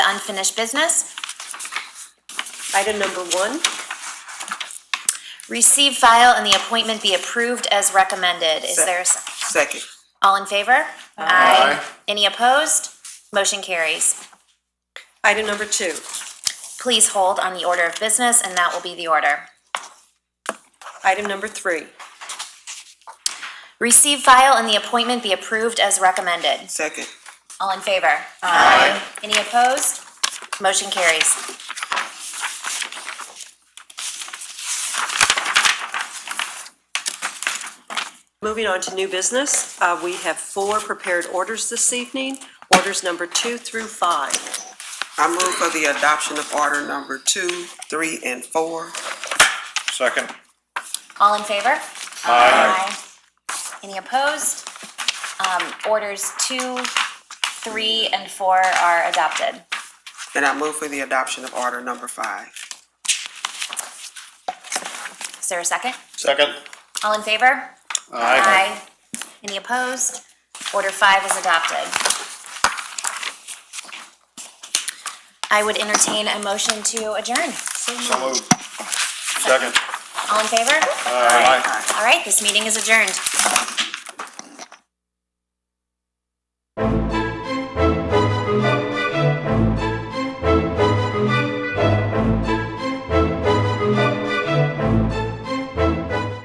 unfinished business. Item number one, Receive, file, and the appointment be approved as recommended. Is there a second? Second. All in favor? Aye. Any opposed? Motion carries. item number two, Please hold on the order of business, and that will be the order. item number three, Receive, file, and the appointment be approved as recommended. Second. All in favor? Aye. Any opposed? Motion carries. Moving on to new business, uh, we have four prepared orders this evening, orders number two through five. I move for the adoption of order number two, three, and four. Second. All in favor? Aye. Any opposed? Um, orders two, three, and four are adopted. And I move for the adoption of order number five. Is there a second? Second. All in favor? Aye. Any opposed? Order five is adopted. I would entertain a motion to adjourn. So moved. Second. All in favor? Aye. All right, this meeting is adjourned.